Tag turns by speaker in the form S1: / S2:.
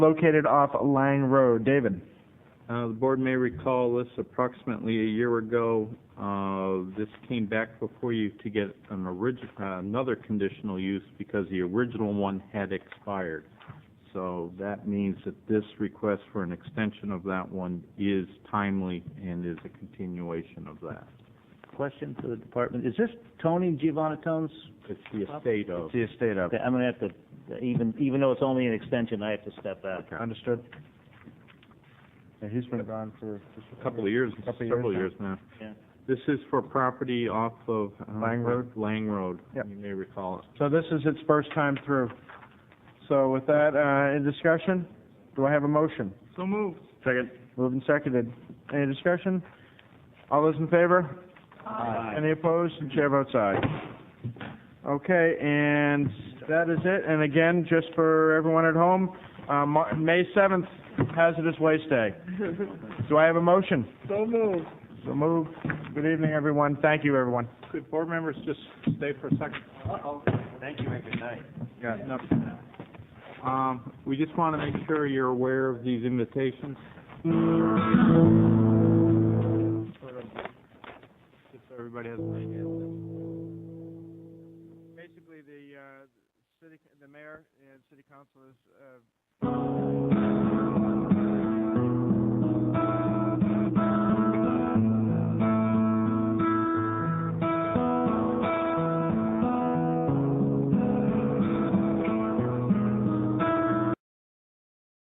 S1: located off Lang Road. David?
S2: Uh, The board may recall this approximately a year ago. Uh, This came back before you to get an origi- uh, another conditional use because the original one had expired. So that means that this request for an extension of that one is timely and is a continuation of that.
S3: Question to the department, is this Tony Giovannatone's?
S2: It's the estate of.
S1: The estate of.
S3: Okay, I'm gonna have to, even, even though it's only an extension, I have to step back.
S1: Understood. Yeah, he's been gone for just
S2: A Couple of years,
S1: Couple of years
S2: several
S1: now.
S2: years now.
S3: Yeah.
S2: This is for property off of. uh,
S1: Lang Road?
S2: Lang Road.
S1: Yep.
S2: You may recall it.
S1: So this is its first time through. So with that, uh, in discussion, do I have a motion?
S2: So moved.
S1: Second. Moved and seconded. Any discussion? All those in favor? Aye. Any opposed? The Chair votes aye. Okay, and that is it. And again, just for everyone at home, uh, Mar- May seventh, Hazardous Waste Day. Do I have a motion?
S2: So moved.
S1: So moved. Good evening, everyone. Thank you, everyone.
S2: Could board members just stay for a second? Uh-oh, thank you and good night. Yeah. Um, we just want to make sure you're aware of these invitations. Just so everybody has an idea.
S1: Basically, the, uh, city, the mayor and city council is, uh,